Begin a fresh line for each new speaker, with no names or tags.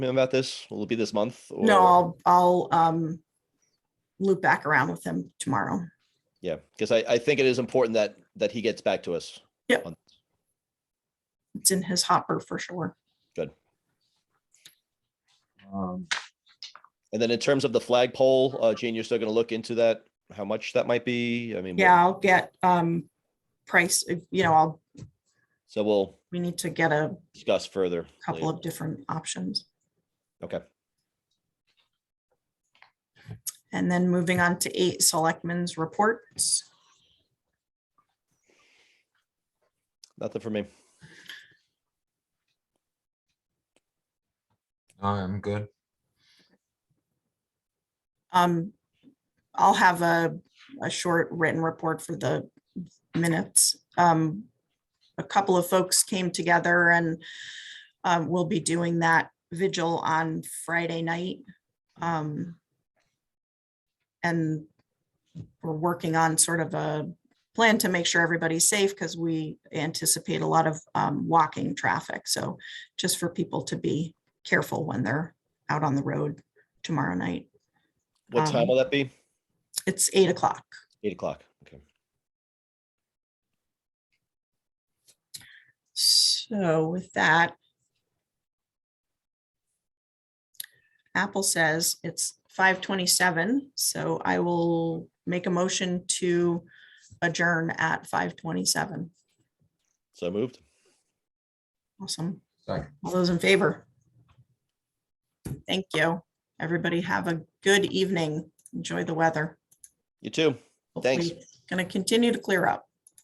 about this? Will it be this month? or-
No, I'll, I'll, um, loop back around with him tomorrow.
Yeah, because I, I think it is important that, that he gets back to us.
It's in his hopper for sure.
Um,
And then in terms of the flagpole, uh, Gene, you're still gonna look into that, how much that might be? I mean. we'll-
Yeah, I'll get, um, price, uh, you know, I'll,
So we'll
we need to get a
discuss further.
couple
later.
of different options.
Okay,
And then moving on to eight selectmen's reports.
nothing for me.
I'm good.
Um, I'll have a, a short written report for the minutes. Um, a couple of folks came together and um, we'll be doing that vigil on Friday night. Um, and we're working on sort of a plan to make sure everybody's safe because we anticipate a lot of um, walking traffic. So just for people to be careful when they're out on the road tomorrow night.
What time
Um,
will that be?
It's eight o'clock.
Eight o'clock. Okay.
So with that. Apple says it's five twenty-seven, so I will make a motion to adjourn at five twenty-seven.
So moved.
Awesome.
Second.
All those in favor? Thank you. Everybody have a good evening. Enjoy the weather.
You too. Thanks.
Going to continue to clear up.